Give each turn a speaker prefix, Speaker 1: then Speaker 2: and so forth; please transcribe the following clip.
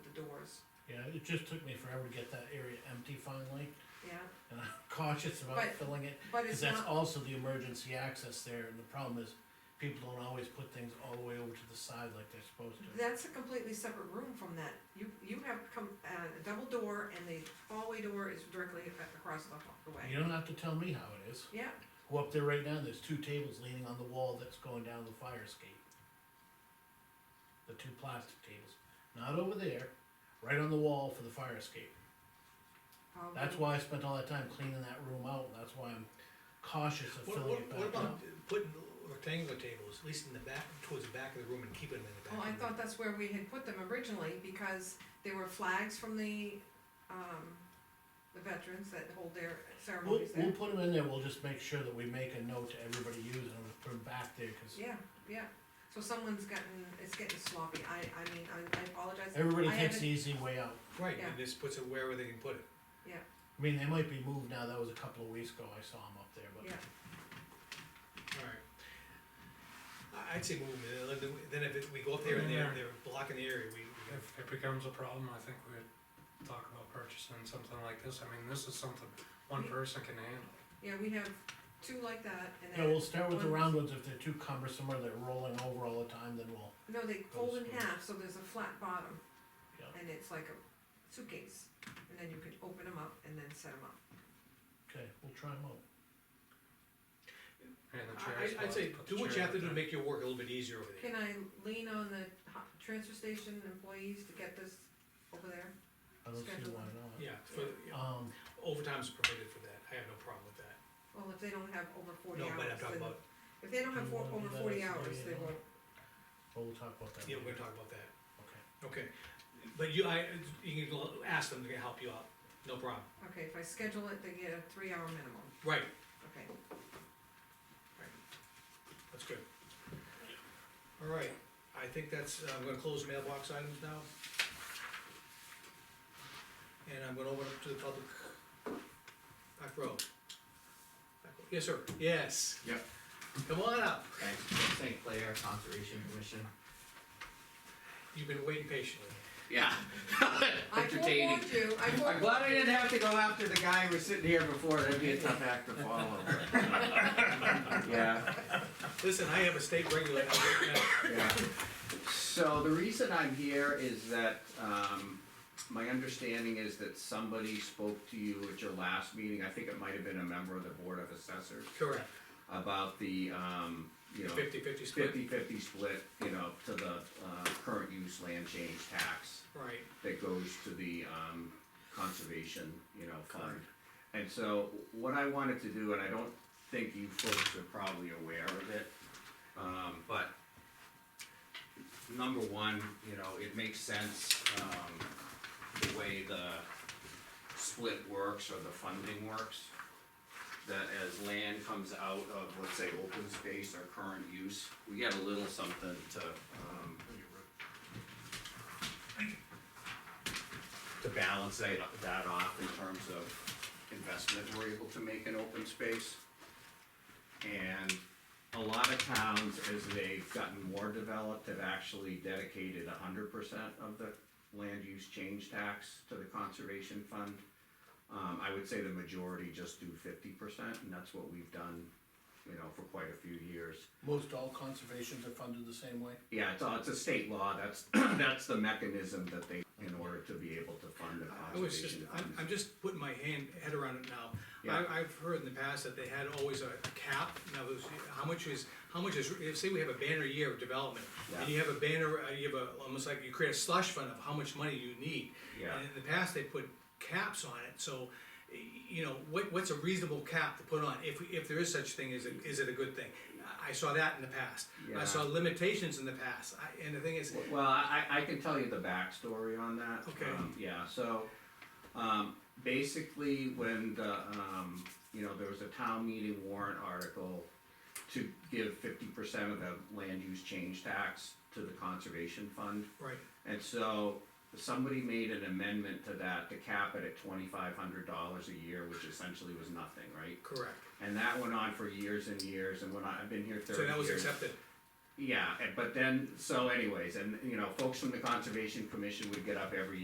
Speaker 1: Yeah, it just took me forever to get that area empty finally,
Speaker 2: yeah,
Speaker 1: and I'm cautious about
Speaker 2: But-
Speaker 1: filling it,
Speaker 2: but
Speaker 1: cause
Speaker 2: it's
Speaker 1: that's
Speaker 2: not,
Speaker 1: also the emergency access there, and the problem is, people don't always put things all the way over to the side like they're supposed to.
Speaker 2: that's a completely separate room from that. You, you have come, uh, a double door and the hallway door is directly a- across the hallway.
Speaker 1: You don't have to tell me how it is,
Speaker 2: Yeah,
Speaker 1: go up there right now, there's two tables leaning on the wall that's going down the fire escape. The two plastic tables, not over there, right on the wall for the fire escape.
Speaker 2: um,
Speaker 1: That's why I spent all that time cleaning that room out, and that's why I'm cautious of
Speaker 3: What,
Speaker 1: filling
Speaker 3: what,
Speaker 1: it
Speaker 3: what
Speaker 1: back
Speaker 3: about
Speaker 1: up.
Speaker 3: putting rectangular tables, at least in the back, towards the back of the room and keeping them in the back?
Speaker 2: Well, I
Speaker 3: of the room?
Speaker 2: thought that's where we had put them originally, because there were flags from the, um, the veterans that hold their
Speaker 1: We'll,
Speaker 2: ceremonies
Speaker 1: we'll
Speaker 2: there.
Speaker 1: put them in there, we'll just make sure that we make a note to everybody using them, and put them back there, cause
Speaker 2: Yeah, yeah, so someone's gotten, it's getting sloppy, I, I mean, I, I apologize.
Speaker 1: everybody
Speaker 2: I
Speaker 1: takes
Speaker 2: haven't-
Speaker 1: the easy way out.
Speaker 3: Right,
Speaker 2: yeah.
Speaker 3: and this puts it wherever they can put it.
Speaker 1: I mean, they might be moved now, that was a couple of weeks ago, I saw them up there, but
Speaker 2: Yeah,
Speaker 3: Alright. I, I'd say move them, and then- then if it- we go up there and they're, they're blocking the area, we, we have,
Speaker 4: If it becomes a problem, I think we'd talk about purchasing something like this, I mean, this is something one person can handle.
Speaker 2: yeah, we have two like that, and
Speaker 1: yeah,
Speaker 2: then,
Speaker 1: we'll start with the
Speaker 2: One-
Speaker 1: round ones, if they're too cumbersome or they're rolling over all the time, then we'll,
Speaker 2: no, they fold in
Speaker 1: Those ones.
Speaker 2: half, so there's a flat bottom,
Speaker 1: Yeah.
Speaker 2: and it's like a suitcase, and then you can open them up and then set them up.
Speaker 1: okay, we'll try them out.
Speaker 4: And the
Speaker 3: I,
Speaker 4: chairs.
Speaker 3: I- I'd
Speaker 4: we'll
Speaker 3: say,
Speaker 4: put
Speaker 3: do
Speaker 4: the
Speaker 3: what you
Speaker 4: chairs
Speaker 3: have to do to
Speaker 4: back.
Speaker 3: make your work a little bit easier over there.
Speaker 2: Can I lean on the ho- transfer station employees to get this over there?
Speaker 1: I don't see
Speaker 2: Schedule
Speaker 1: why
Speaker 2: them.
Speaker 1: not.
Speaker 3: Yeah, for, yeah,
Speaker 1: Um,
Speaker 3: overtime's permitted for that, I have no problem with that.
Speaker 2: Well, if they don't have over forty
Speaker 3: No,
Speaker 2: hours,
Speaker 3: but I'm talking
Speaker 2: then,
Speaker 3: about,
Speaker 2: if they don't
Speaker 1: Do
Speaker 2: have
Speaker 1: you
Speaker 2: four,
Speaker 1: wanna do
Speaker 2: over
Speaker 1: that
Speaker 2: forty
Speaker 1: as an
Speaker 2: hours, they
Speaker 1: area?
Speaker 2: won't,
Speaker 1: but we'll talk about that.
Speaker 3: yeah, we're
Speaker 1: later.
Speaker 3: gonna talk about that,
Speaker 1: Okay,
Speaker 3: okay. But you, I, you can l- ask them to help you out, no problem,
Speaker 2: okay, if I schedule it, they get a three hour minimum,
Speaker 3: right,
Speaker 2: okay.
Speaker 3: That's good. All right, I think that's, uh, I'm gonna close mailbox items now. And I'm gonna open up to the public. Back row. Back row. Yes, sir, yes.
Speaker 5: Yep.
Speaker 3: Come on up,
Speaker 5: Thanks, St. Clair Conservation Commission.
Speaker 3: you've been waiting patiently.
Speaker 5: Yeah.
Speaker 2: I
Speaker 5: Entertaining.
Speaker 2: forewarned you, I
Speaker 5: I'm
Speaker 2: forewarned.
Speaker 5: glad I didn't have to go after the guy who was sitting here before, that'd be a tough act to follow. Yeah,
Speaker 3: Listen, I have a state regulator.
Speaker 5: yeah. So the reason I'm here is that, um, my understanding is that somebody spoke to you at your last meeting, I think it might have been a member of the Board of Assessors,
Speaker 3: Correct,
Speaker 5: about the, um, you know,
Speaker 3: fifty-fifty split,
Speaker 5: fifty-fifty split, you know, to the, uh, current use land change tax.
Speaker 3: right,
Speaker 5: that goes to the, um, conservation, you know, fund.
Speaker 3: Correct.
Speaker 5: And so, what I wanted to do, and I don't think you folks are probably aware of it, um, but number one, you know, it makes sense, um, the way the split works or the funding works. That as land comes out of, let's say, open space or current use, we get a little something to, um, to balance that, that off in terms of investment we're able to make in open space. And a lot of towns, as they've gotten more developed, have actually dedicated hundred percent of the land use change tax to the conservation fund. Um, I would say the majority just do fifty percent, and that's what we've done, you know, for quite a few years.
Speaker 1: most all conservations are funded the same way?
Speaker 5: Yeah, it's, a- it's a state law, that's, that's the mechanism that they, in order to be able to fund a
Speaker 3: I was Oh, just,
Speaker 5: conservation
Speaker 3: I'm,
Speaker 5: fund.
Speaker 3: I'm just putting my hand, head around it now.
Speaker 5: Yeah.
Speaker 3: I, I've heard in the past that they had always a cap, now there's, how much is, how much is, if- say we have a banner year of development, and you have a banner, uh, you have a, almost like you create a slush fund of how much money you need.
Speaker 5: Yeah.
Speaker 3: And in the past, they put caps on it, so, y- you know, what, what's a reasonable cap to put on, if, we- if there is such thing, is it, is it a good thing? I- I saw that in the past, I
Speaker 5: Yeah.
Speaker 3: saw limitations in the past, I, and the thing is,
Speaker 5: Well, I, I I can tell you the backstory on that.
Speaker 3: Okay.
Speaker 5: Um, Yeah, so, um, basically, when the, um, you know, there was a town meeting warrant article to give fifty percent of the land use change tax to the conservation fund.
Speaker 3: right,
Speaker 5: And so somebody made an amendment to that to cap it at twenty-five hundred dollars a year, which essentially was nothing, right?
Speaker 3: correct,
Speaker 5: And that went on for years and years, and when I, I've been here thirty
Speaker 3: so
Speaker 5: years.
Speaker 3: that was accepted,
Speaker 5: Yeah, and- but then, so anyways, and, you know, folks from the Conservation Commission would get up every